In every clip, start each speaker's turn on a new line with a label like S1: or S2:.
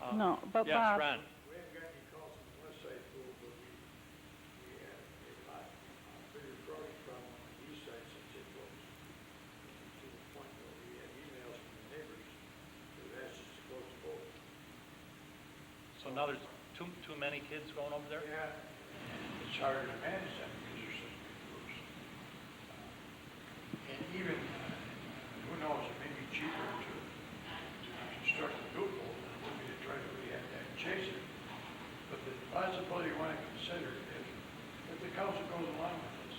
S1: Bob?
S2: No, but
S1: Um, Yes,
S2: Bob-
S1: Ron,
S3: We haven't got any calls from the West Side Pool, but we, we had a lot, a bigger growing problem on the East Side since it was to the point where we had emails from the neighbors who asked us to close the pool.
S1: so now there's too, too many kids going over there?
S3: Yeah, it's harder to manage that because there's such big groups. And even, uh, who knows, it may be cheaper to, to construct a new pool than it would be to try to rehab that and chase it. But the possibility you want to consider is, if the council goes along with this,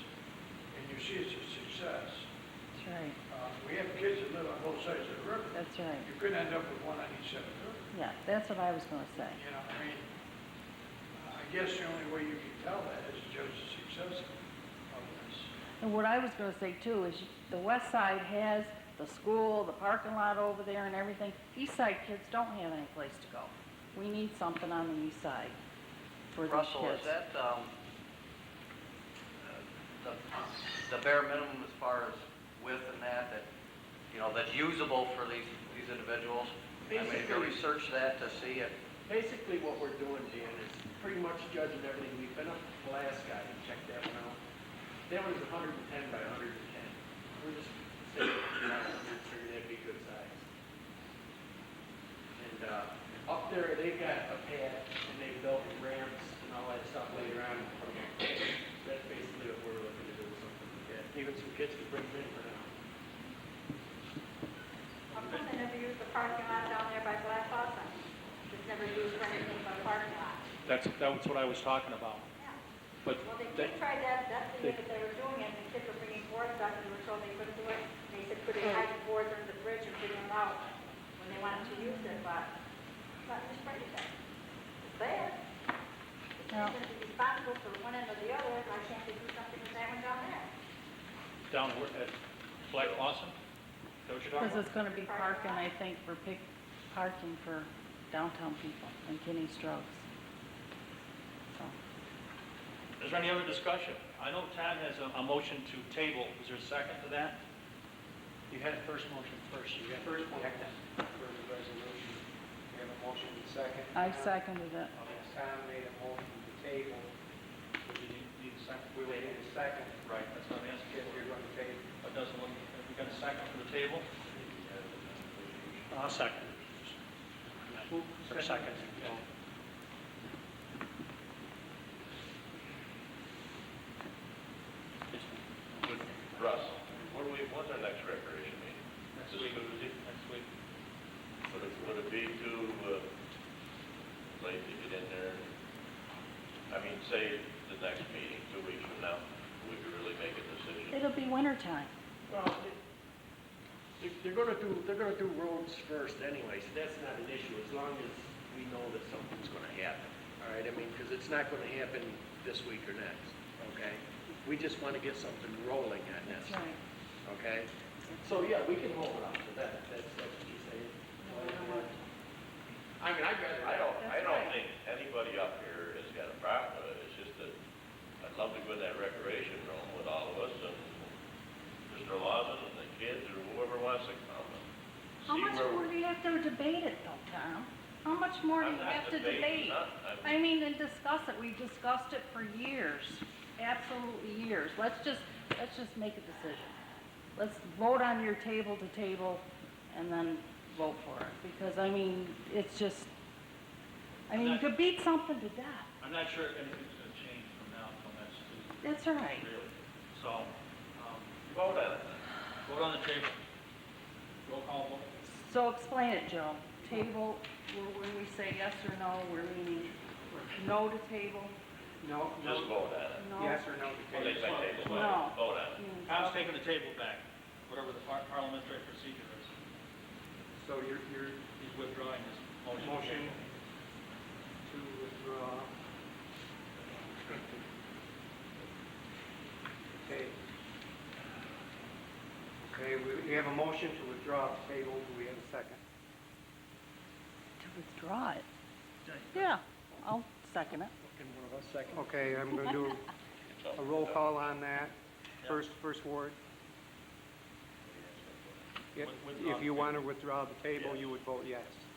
S3: and you see it's a success,
S2: That's right,
S3: uh, we have kids that live on both sides of the river.
S2: that's right.
S3: You could end up with one on each side of the river.
S2: Yeah, that's what I was gonna say.
S3: You know, I mean, I guess the only way you can tell that is judge the success of this.
S2: And what I was gonna say too is the west side has the school, the parking lot over there and everything. East side kids don't have any place to go. We need something on the east side for these kids.
S4: Russell, is that, um, uh, the, the bare minimum as far as width and that, that, you know, that's usable for these, these individuals? I mean, if you
S5: Basically-
S4: research that to see if,
S5: Basically, what we're doing, Dan, is pretty much judging everything. We've been up to Alaska and checked that one out. That one's hundred and ten by hundred and ten. We're just saying, you know, we figure that'd be good size. And, uh, up there, they've got a pad and they built ramps and all that stuff later on. That's basically what we're looking to do, something like that. Even some kids could bring them in for now.
S6: My husband never used the parking lot down there by Black Hawthorne. Just never used for anything but a parking lot.
S1: That's, that's what I was talking about,
S6: Yeah.
S1: but
S6: Well, they
S1: that,
S6: did try that, that's the way that they were doing it, the kids were bringing boards up, and they were told they couldn't do it. They said, could they hide the boards under the bridge and bring them out when they wanted to use it, but, but it's pretty bad. It's there.
S2: Yeah.
S6: If you're going to be responsible for one end or the other, why can't they do something with that one down there?
S1: down where- at Black Lawson? Is that what you're talking
S2: Because
S1: about?
S2: it's gonna be parking, I think, for pick, parking for downtown people and Kenny Strokes. So,
S1: Is there any other discussion? I know Tom has a, a motion to table, is there a second to that?
S5: You had a first motion first, you got first one for the resolution. You have a motion and second.
S2: I seconded it.
S5: Okay, Tom made a motion to table. We waited a second.
S1: Right, that's what I'm asking.
S5: If you're going to table.
S1: It doesn't look, have we got a second for the table?
S7: I'll second. For second.
S8: Russ, what do we, what's our next recreation meeting?
S1: Next week, next week.
S8: Would it, would it be to, uh, late to get in there? I mean, say the next meeting, two weeks from now, we could really make a decision.
S2: It'll be wintertime.
S5: Well, they- they're going to do, they're going to do roads first anyway, so that's not an issue, as long as we know that something's going to happen. All right, I mean, because it's not going to happen this week or next, okay? We just want to get something rolling on this.
S2: That's right.
S5: okay? So, yeah, we can hold it off, but that, that's, that's what he's saying. I mean, I'd rather,
S8: I don't, I
S2: That's
S8: don't
S2: right.
S8: think anybody up here has got a problem with it, it's just that I'd love to go in that recreation room with all of us and Mr. Lawson and the kids or whoever wants to come and
S2: How
S8: see
S2: much
S8: where
S2: more
S8: we're.
S2: do you have to debate it though, Tom? How much more do
S8: I'm
S2: you
S8: not
S2: have to debate?
S8: debating nothing. I'm-
S2: I mean, and discuss it, we've discussed it for years, absolutely years. Let's just, let's just make a decision. Let's vote on your table to table and then vote for it, because I mean, it's just, I mean, you could beat something to death.
S1: I'm not sure if anything's gonna change from now until next Tuesday,
S2: That's all right.
S1: really. So, um,
S8: Vote on it.
S1: vote on the table. Roll call vote.
S2: So explain it, Joe. Table, wh- when we say yes or no, we're meaning no to table,
S5: no, no,
S8: Just vote on it.
S2: no.
S5: yes or no
S8: Well,
S5: to
S8: they
S5: table.
S8: say table,
S2: No.
S8: vote, vote on it.
S2: means-
S1: Tom's taking the table back, whatever the par- parliamentary procedure is.
S5: So you're, you're
S1: He's withdrawing his motion.
S5: Motion. to withdraw. Okay. Okay, we, we have a motion to withdraw the table, do we have a second?
S2: To withdraw it. Yeah, I'll second it.
S5: Can one of us second? Okay, I'm gonna do a roll call on that. First, first ward. If,
S1: With- withdraw
S5: if you
S1: the
S5: wanna withdraw the table, you would vote yes.